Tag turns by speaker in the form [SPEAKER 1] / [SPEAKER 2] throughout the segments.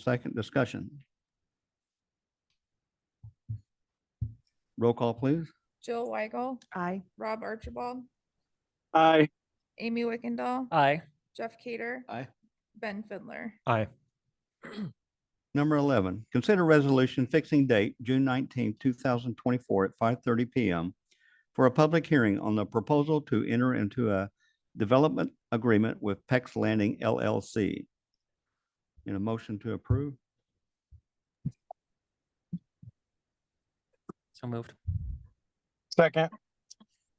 [SPEAKER 1] Second discussion. Roll call, please.
[SPEAKER 2] Jill Weigel,
[SPEAKER 3] Aye.
[SPEAKER 2] Rob Archibald,
[SPEAKER 4] Aye.
[SPEAKER 2] Amy Wickendall,
[SPEAKER 5] Aye.
[SPEAKER 2] Jeff Cader.
[SPEAKER 6] Aye.
[SPEAKER 2] Ben Fidler.
[SPEAKER 5] Aye.
[SPEAKER 1] Number 11, consider resolution fixing date, June 19, 2024 at 5:30 PM for a public hearing on the proposal to enter into a development agreement with Pex Landing LLC. In a motion to approve,
[SPEAKER 5] So moved.
[SPEAKER 4] Second.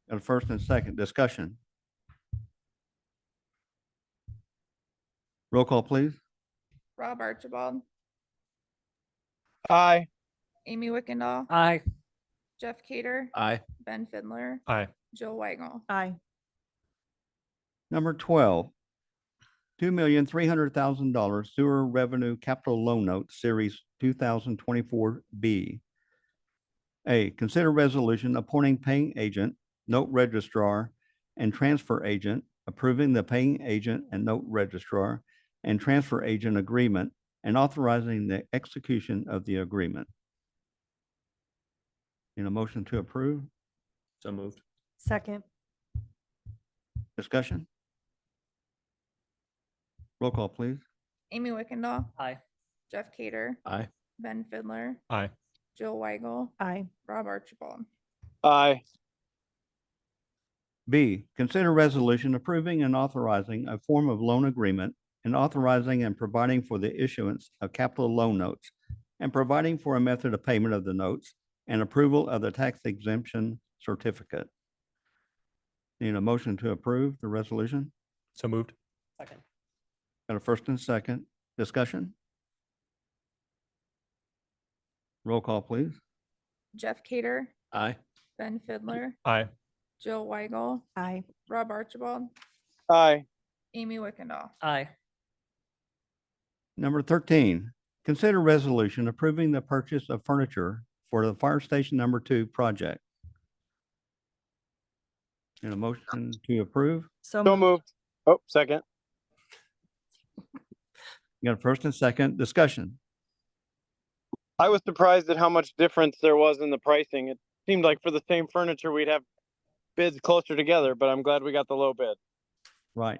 [SPEAKER 1] and a first and second discussion. Roll call, please.
[SPEAKER 2] Rob Archibald,
[SPEAKER 4] Aye.
[SPEAKER 2] Amy Wickendall,
[SPEAKER 5] Aye.
[SPEAKER 2] Jeff Cader,
[SPEAKER 6] Aye.
[SPEAKER 2] Ben Fidler,
[SPEAKER 5] Aye.
[SPEAKER 2] Jill Weigel.
[SPEAKER 3] Aye.
[SPEAKER 1] Number twelve, two million, three hundred thousand dollars sewer revenue capital loan note series two thousand twenty-four B. A, consider resolution appointing paying agent, note registrar, and transfer agent, approving the paying agent and note registrar and transfer agent agreement and authorizing the execution of the agreement. In a motion to approve,
[SPEAKER 6] So moved.
[SPEAKER 3] Second.
[SPEAKER 1] discussion? Roll call, please.
[SPEAKER 2] Amy Wickendall,
[SPEAKER 5] Aye.
[SPEAKER 2] Jeff Cader,
[SPEAKER 6] Aye.
[SPEAKER 2] Ben Fidler,
[SPEAKER 5] Aye.
[SPEAKER 2] Jill Weigel,
[SPEAKER 3] Aye.
[SPEAKER 2] Rob Archibald.
[SPEAKER 4] Aye.
[SPEAKER 1] B, consider resolution approving and authorizing a form of loan agreement and authorizing and providing for the issuance of capital loan notes and providing for a method of payment of the notes and approval of the tax exemption certificate. Need a motion to approve the resolution?
[SPEAKER 5] So moved. Second.
[SPEAKER 1] Got a first and second discussion? Roll call, please.
[SPEAKER 2] Jeff Cader,
[SPEAKER 6] Aye.
[SPEAKER 2] Ben Fidler,
[SPEAKER 5] Aye.
[SPEAKER 2] Jill Weigel,
[SPEAKER 3] Aye.
[SPEAKER 2] Rob Archibald,
[SPEAKER 4] Aye.
[SPEAKER 2] Amy Wickendall.
[SPEAKER 5] Aye.
[SPEAKER 1] Number thirteen, consider resolution approving the purchase of furniture for the fire station number two project. And a motion to approve.
[SPEAKER 3] So
[SPEAKER 4] So
[SPEAKER 3] moved.
[SPEAKER 4] moved. Oh, second.
[SPEAKER 1] You got a first and second discussion.
[SPEAKER 4] I was surprised at how much difference there was in the pricing. It seemed like for the same furniture, we'd have bids closer together, but I'm glad we got the low bid.
[SPEAKER 1] Right.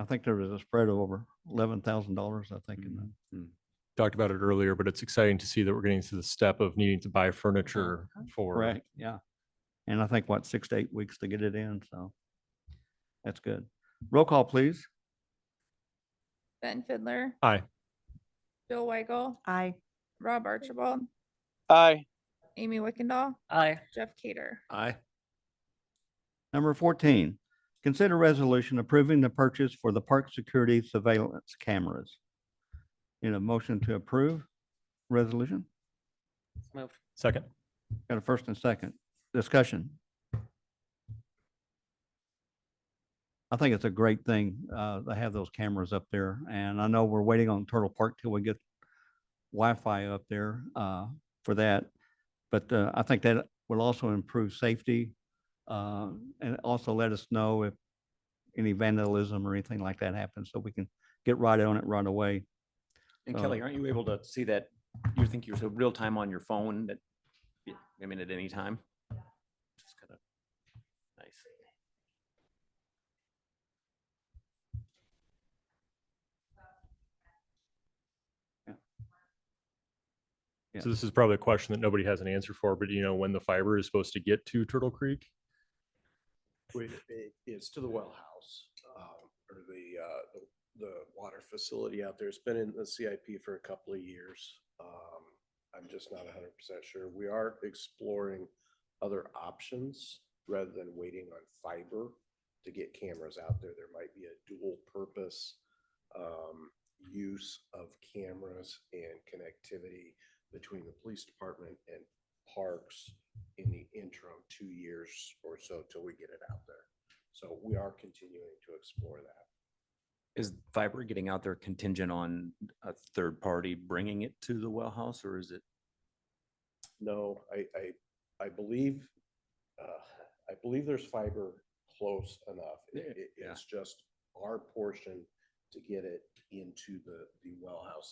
[SPEAKER 1] I think there was a spread of over eleven thousand dollars, I think. in the-
[SPEAKER 7] talked about it earlier, but it's exciting to see that we're getting to the step of needing to buy furniture
[SPEAKER 5] Uh-huh.
[SPEAKER 7] for
[SPEAKER 1] Correct, yeah. And I think what, six to eight weeks to get it in, so. That's good. Roll call, please.
[SPEAKER 2] Ben Fidler.
[SPEAKER 7] Aye.
[SPEAKER 2] Jill Weigel,
[SPEAKER 3] Aye.
[SPEAKER 2] Rob Archibald,
[SPEAKER 4] Aye.
[SPEAKER 2] Amy Wickendall,
[SPEAKER 5] Aye.
[SPEAKER 2] Jeff Cader.
[SPEAKER 6] Aye.
[SPEAKER 1] Number fourteen, consider resolution approving the purchase for the park security surveillance cameras. In a motion to approve resolution,
[SPEAKER 5] So Moved.
[SPEAKER 7] second.
[SPEAKER 1] got a first and second discussion. I think it's a great thing, uh, to have those cameras up there, and I know we're waiting on Turtle Park till we get Wi-Fi up there, uh, for that. But, uh, I think that will also improve safety, uh, and also let us know if any vandalism or anything like that happens, so we can get right on it right away.
[SPEAKER 6] And
[SPEAKER 1] Uh,
[SPEAKER 6] Kelly, aren't you able to see that? You think you're so real time on your phone that, I mean, at any time? Just kind of nice.
[SPEAKER 1] Yeah.
[SPEAKER 7] So this is probably a question that nobody has an answer for, but you know, when the fiber is supposed to get to Turtle Creek?
[SPEAKER 8] Wait, it- It's to the well house, uh, or the, uh, the- the water facility out there. It's been in the CIP for a couple of years. Um, I'm just not hundred percent sure. We are exploring other options rather than waiting on fiber to get cameras out there. There might be a dual purpose um, use of cameras and connectivity between the police department and parks in the interim two years or so till we get it out there. So we are continuing to explore that.
[SPEAKER 6] Is fiber getting out there contingent on a third party bringing it to the well house or is it?
[SPEAKER 8] No, I, I, I believe, uh, I believe there's fiber close enough. It-
[SPEAKER 6] Yeah.
[SPEAKER 8] it-
[SPEAKER 6] Yeah.
[SPEAKER 8] it's just our portion to get it into the, the well house